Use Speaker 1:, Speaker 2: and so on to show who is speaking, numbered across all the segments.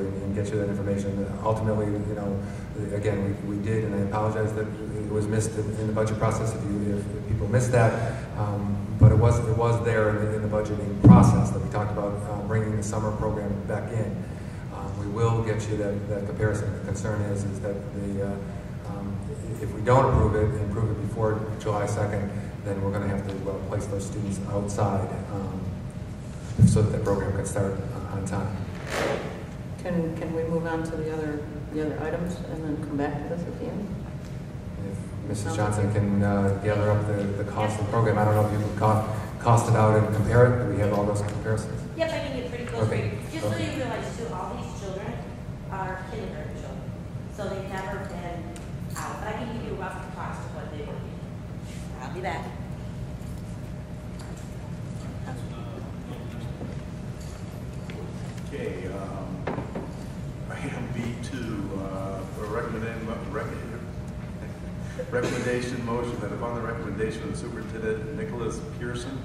Speaker 1: and get you that information. Ultimately, you know, again, we, we did, and I apologize that it was missed in, in the budget process if you, if if people missed that. Um, but it was, it was there in the, in the budgeting process that we talked about, uh, bringing the summer program back in. Um, we will get you that, that comparison. The concern is, is that the, uh, um, if we don't approve it, and approve it before July second, then we're gonna have to, uh place those students outside, um, so that the program can start on- on time.
Speaker 2: Can, can we move on to the other, the other items and then come back to this at the end?
Speaker 1: If Mrs. Johnson can uh, gather up the, the cost of the program, I don't know if you can co- cost it out and compare it, do we have all those comparisons?
Speaker 3: Yep, I can get pretty close for
Speaker 1: Okay.
Speaker 3: you. Just so
Speaker 1: Okay.
Speaker 3: you realize too, all these children are kindergarten children, so they've never been out. But I can give you a rough cost of what they were getting. I'll be back.
Speaker 4: Okay, um, item B2, uh, for recommend, rec- recommendation motion that upon the recommendation of the superintendent Nicholas Pearson,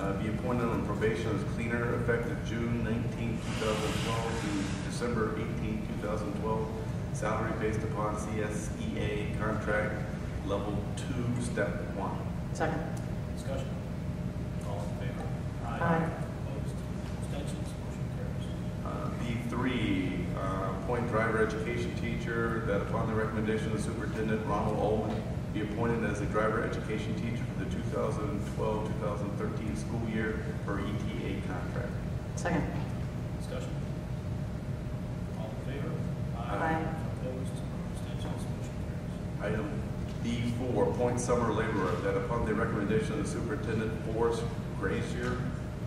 Speaker 4: uh, be appointed on probation as cleaner effective June 19, 2012 through December 18, 2012, salary based upon CSEA contract level 2, step 1.
Speaker 2: Second.
Speaker 5: Discussion. All in favor?
Speaker 2: Aye.
Speaker 5: Opposed? Abstentions? Motion carries.
Speaker 4: Uh, B3, uh, appoint driver education teacher that upon the recommendation of Superintendent Ronald Olman be appointed as a driver education teacher for the 2012-2013 school year per ETA contract.
Speaker 2: Second.
Speaker 5: Discussion. All in favor?
Speaker 2: Aye.
Speaker 5: Opposed? Abstentions? Motion carries.
Speaker 4: Item B4, appoint summer laborer that upon the recommendation of the Superintendent Forrest Grazier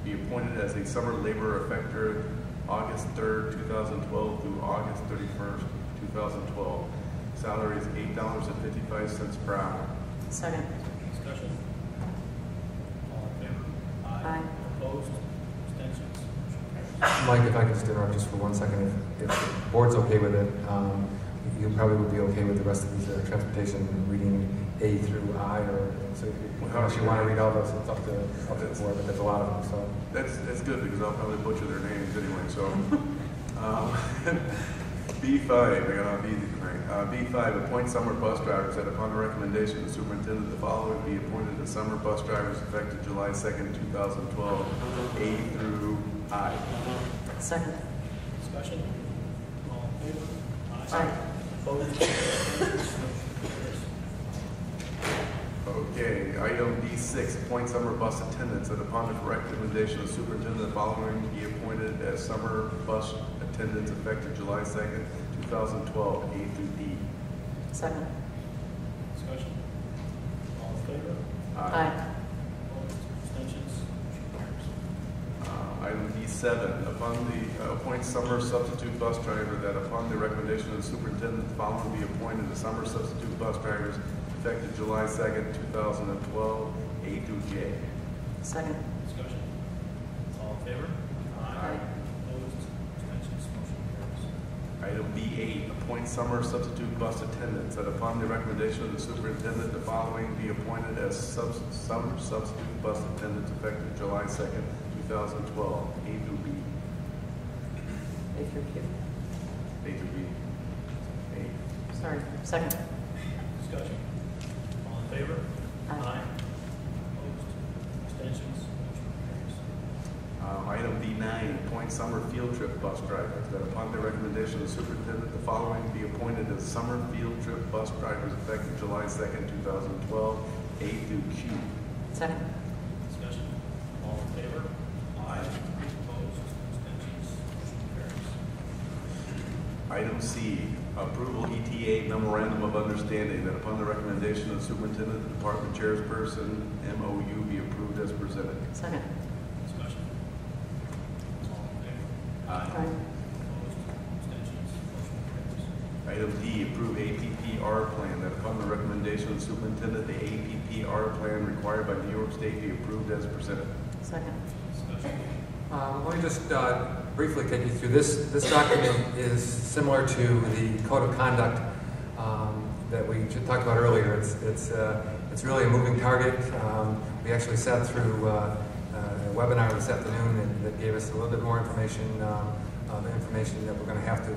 Speaker 4: be appointed as a summer laborer effective August 3rd, 2012 through August 31st, 2012. Salary is $8.55 per hour.
Speaker 2: Second.
Speaker 5: Discussion. All in favor?
Speaker 2: Aye.
Speaker 5: Opposed? Abstentions? Motion carries.
Speaker 1: Mike, if I could just interrupt just for one second, if, if the board's okay with it, um, you probably would be okay with the rest of these uh, transportation reading A through I, or, so if you- unless you want to read all those, it's up to, up to the board, but there's a lot of them,
Speaker 4: That's, that's good because I'll probably butcher their names anyway, so. um, B5, I got off easy tonight. Uh, B5, appoint summer bus drivers that upon the recommendation of the superintendent, the following be appointed as summer bus drivers effective July 2nd, 2012, A through I.
Speaker 2: Second.
Speaker 5: Discussion. All in favor?
Speaker 2: Aye.
Speaker 5: Opposed? Abstentions? Motion carries.
Speaker 4: Okay, item B6, appoint summer bus attendants that upon the recommendation of the superintendent, the following be appointed as summer bus attendants effective July 2nd, 2012, A through E. D.
Speaker 2: Second.
Speaker 5: Discussion. All in favor?
Speaker 2: Aye.
Speaker 5: Opposed? Abstentions? Motion carries.
Speaker 4: Uh, Item D7, upon the, uh, appoint summer substitute bus driver that upon the recommendation of the superintendent, the following be appointed as summer substitute bus drivers effective July 2nd, 2012, A through J.
Speaker 2: Second.
Speaker 5: Discussion. All in favor?
Speaker 2: Aye.
Speaker 5: Opposed? Abstentions? Motion carries.
Speaker 4: Item B8, appoint summer substitute bus attendants that upon the recommendation of the superintendent, the following be appointed as subs- summer substitute bus attendants effective July 2nd, 2012, A through B.
Speaker 2: A through Q.
Speaker 4: A through B. A.
Speaker 2: Sorry. Second.
Speaker 5: Discussion. All in favor?
Speaker 2: Aye.
Speaker 5: Opposed? Abstentions? Motion carries.
Speaker 4: Um, Item B9, appoint summer field trip bus drivers, that upon the recommendation of the superintendent, the following be appointed as summer field trip bus drivers effective July 2nd, 2012, A through Q.
Speaker 2: Second.
Speaker 5: Discussion. All in favor? Aye. Opposed? Abstentions? Motion carries.
Speaker 4: Item C, approval ETA memorandum of understanding, that upon the recommendation of the superintendent, the department chairperson, MOU be approved as presented.
Speaker 2: Second.
Speaker 5: Discussion. All in favor?
Speaker 2: Aye.
Speaker 5: Opposed? Abstentions? Motion carries.
Speaker 4: Item D, approve APPR plan, that upon the recommendation of the superintendent, the APPR plan required by New York State be approved as presented.
Speaker 2: Second.
Speaker 5: Discussion.
Speaker 1: Um, Let me just uh, briefly take you through this. This document is similar to the code of conduct um, that we ju- talked about earlier. It's, it's, uh, it's really a moving target. Um, We actually sat through uh, a webinar this afternoon that- that gave us a little bit more information, um, uh, the information that we're going to have to